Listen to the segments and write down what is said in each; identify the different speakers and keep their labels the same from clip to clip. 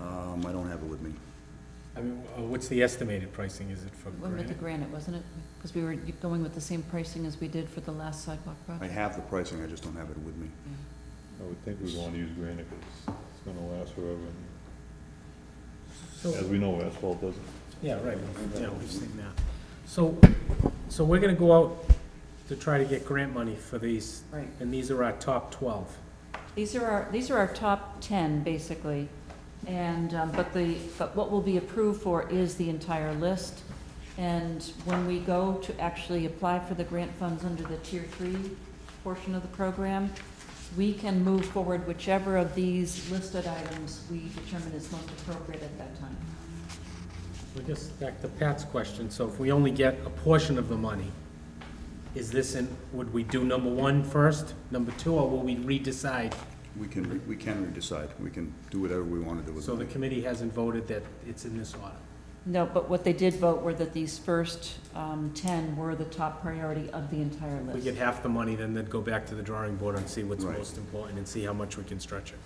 Speaker 1: Um, I don't have it with me.
Speaker 2: I mean, uh, what's the estimated pricing, is it for
Speaker 3: Went with the
Speaker 2: granite?
Speaker 3: granite, wasn't it? Because we were going with the same pricing as we did for the last sidewalk
Speaker 1: I
Speaker 3: project.
Speaker 1: have the pricing, I just don't have it with me.
Speaker 3: Yeah.
Speaker 4: I would think we'd wanna use granite, 'cause it's gonna last forever, and
Speaker 2: So,
Speaker 4: as we know, asphalt doesn't.
Speaker 2: yeah, right, yeah, we've seen that. So, so we're gonna go out to try to get grant money for these,
Speaker 3: Right.
Speaker 2: and these are our top twelve.
Speaker 3: These are our, these are our top 10, basically. And, um, but the, but what will be approved for is the entire list. And when we go to actually apply for the grant funds under the Tier 3 portion of the program, we can move forward whichever of these listed items we determine is most appropriate at that time.
Speaker 2: We're just back to Pat's question, so if we only get a portion of the money, is this in, would we do number one first, number two, or will we redecide?
Speaker 1: We can, re- we can redecide, we can do whatever we want to do with
Speaker 2: So the
Speaker 1: it.
Speaker 2: committee hasn't voted that it's in this order.
Speaker 3: No, but what they did vote were that these first um, 10 were the top priority of the entire
Speaker 2: If
Speaker 3: list.
Speaker 2: we get half the money, then then go back to the drawing board and see what's
Speaker 1: Right.
Speaker 2: most important and see how much we can stretch it.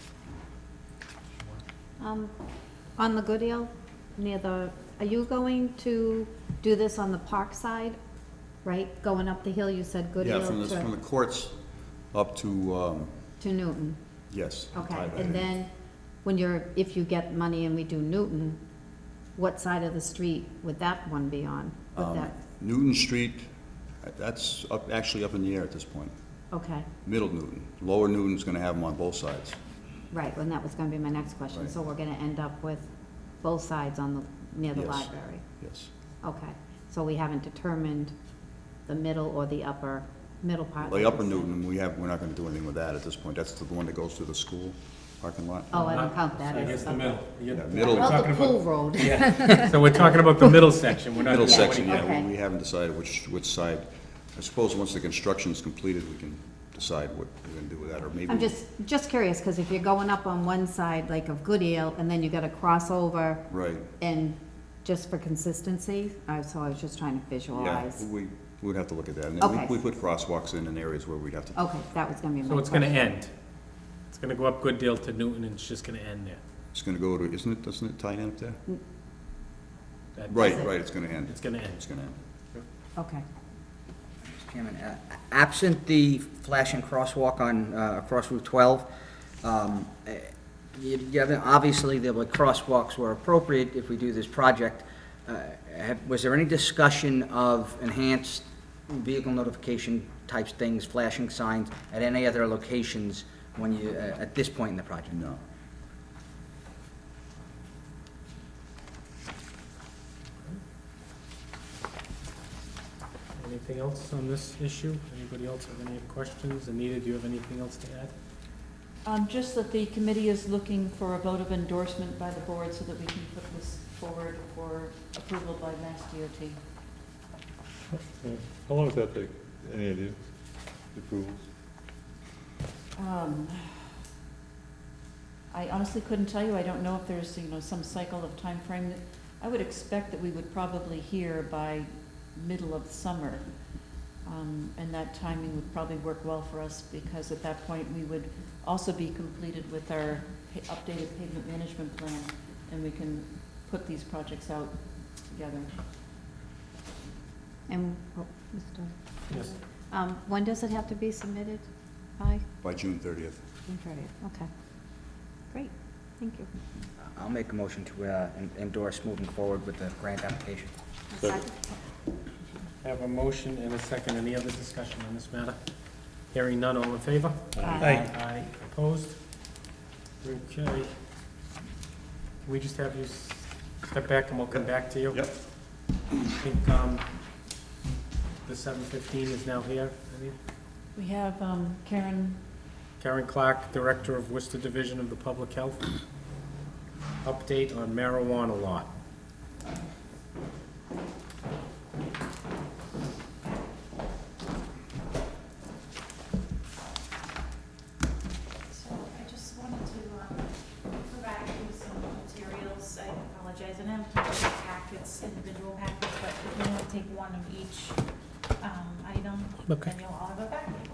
Speaker 5: Um, on the Goodale, near the, are you going to do this on the park side? Right, going up the hill, you said
Speaker 1: Yeah, from
Speaker 5: Goodale
Speaker 1: the, from
Speaker 5: to,
Speaker 1: the courts up to, um,
Speaker 5: to Newton,
Speaker 1: yes.
Speaker 5: okay,
Speaker 1: Tyler.
Speaker 5: and then, when you're, if you get money and we do Newton, what side of the street would that one be on? Would
Speaker 1: Um,
Speaker 5: that,
Speaker 1: Newton Street, that's up, actually up in the air at this point.
Speaker 5: okay,
Speaker 1: Middle Newton, Lower Newton's gonna have them on both sides.
Speaker 5: right, and that was gonna be my next question,
Speaker 1: Right.
Speaker 5: so we're gonna end up with both sides on the, near the
Speaker 1: Yes.
Speaker 5: library?
Speaker 1: Yes,
Speaker 5: Okay, so we haven't determined the middle or the upper, middle part?
Speaker 1: the Upper Newton, we have, we're not gonna do anything with that at this point. That's the one that goes through the school parking lot.
Speaker 5: Oh, I don't count that
Speaker 2: I
Speaker 5: as
Speaker 2: guess the
Speaker 5: upper.
Speaker 2: middle.
Speaker 1: Yeah, middle-
Speaker 5: Well,
Speaker 2: Talking
Speaker 5: the
Speaker 2: about-
Speaker 5: pool road,
Speaker 2: Yeah, so we're talking about the middle section, we're not.
Speaker 1: Middle
Speaker 2: doing
Speaker 1: section,
Speaker 2: any-
Speaker 1: yeah, we-
Speaker 5: Okay.
Speaker 1: we haven't decided which, which side. I suppose once the construction's completed, we can decide what we're gonna do with that, or maybe.
Speaker 5: I'm just, just curious, because if you're going up on one side, like of Goodale, and then you gotta cross over,
Speaker 1: Right,
Speaker 5: and just for consistency, I, so I was just trying to
Speaker 1: yeah,
Speaker 5: visualize.
Speaker 1: we, we'd have to look at that. And then we-
Speaker 5: Okay.
Speaker 1: We put crosswalks in in areas where we'd have to,
Speaker 5: Okay, that was gonna be my
Speaker 2: So it's gonna
Speaker 5: question.
Speaker 2: end. It's gonna go up Good Deal to Newton and it's just gonna end there.
Speaker 5: Oh.
Speaker 1: it's gonna go to, isn't it, doesn't it tie in up there?
Speaker 2: That-
Speaker 1: Right, right, it's gonna end,
Speaker 2: It's gonna end.
Speaker 1: it's gonna end.
Speaker 5: Okay,
Speaker 6: Mr. Chairman, uh, absent the flashing crosswalk on, uh, across Route 12, um, eh, you you haven't, obviously, the like, crosswalks were appropriate if we do this project. Uh, have- Was there any discussion of enhanced vehicle notification types things, flashing signs, at any other locations when you, eh, at this point in the project?
Speaker 1: No.
Speaker 2: Anything else on this issue? Anybody else have any questions? Anita, do you have anything else to add?
Speaker 3: Um, just that the committee is looking for a vote of endorsement by the board so that we can put this forward for approval by Mass DOT.
Speaker 4: How long does that take? Any idea? The approvals?
Speaker 3: Um, I honestly couldn't tell you, I don't know if there's, you know, some cycle of time frame. that- I would expect that we would probably hear by middle of summer. Um, and that timing would probably work well for us because at that point, we would also be completed with our pa- updated pavement management plan and we can put these projects out together.
Speaker 5: and, oh, Mr.
Speaker 2: Yes.
Speaker 5: Um, when does it have to be submitted by?
Speaker 1: By June thirtieth.
Speaker 5: June thirtieth. Okay, great, thank you.
Speaker 6: I'll make a motion to uh, en- endorse moving forward with the grant application.
Speaker 4: Second.
Speaker 2: I have a motion and a second. Any other discussion on this matter? Hearing none, all in favor?
Speaker 6: Aye.
Speaker 2: Aye, opposed? Okay. Can we just have you s- step back and we'll come back to you?
Speaker 1: Yep.
Speaker 2: I think, um, the seven fifteen is now here. I mean,
Speaker 3: We have, um, Karen
Speaker 2: Karen Clark, Director of Worcester Division of the Public Health. Update on marijuana law.
Speaker 7: So I just wanted to um, provide you with some materials. I apologize, I do not have time for packets, individual packets, but if you want to take one of each um, item,
Speaker 2: Okay.
Speaker 7: then you'll all have a packet.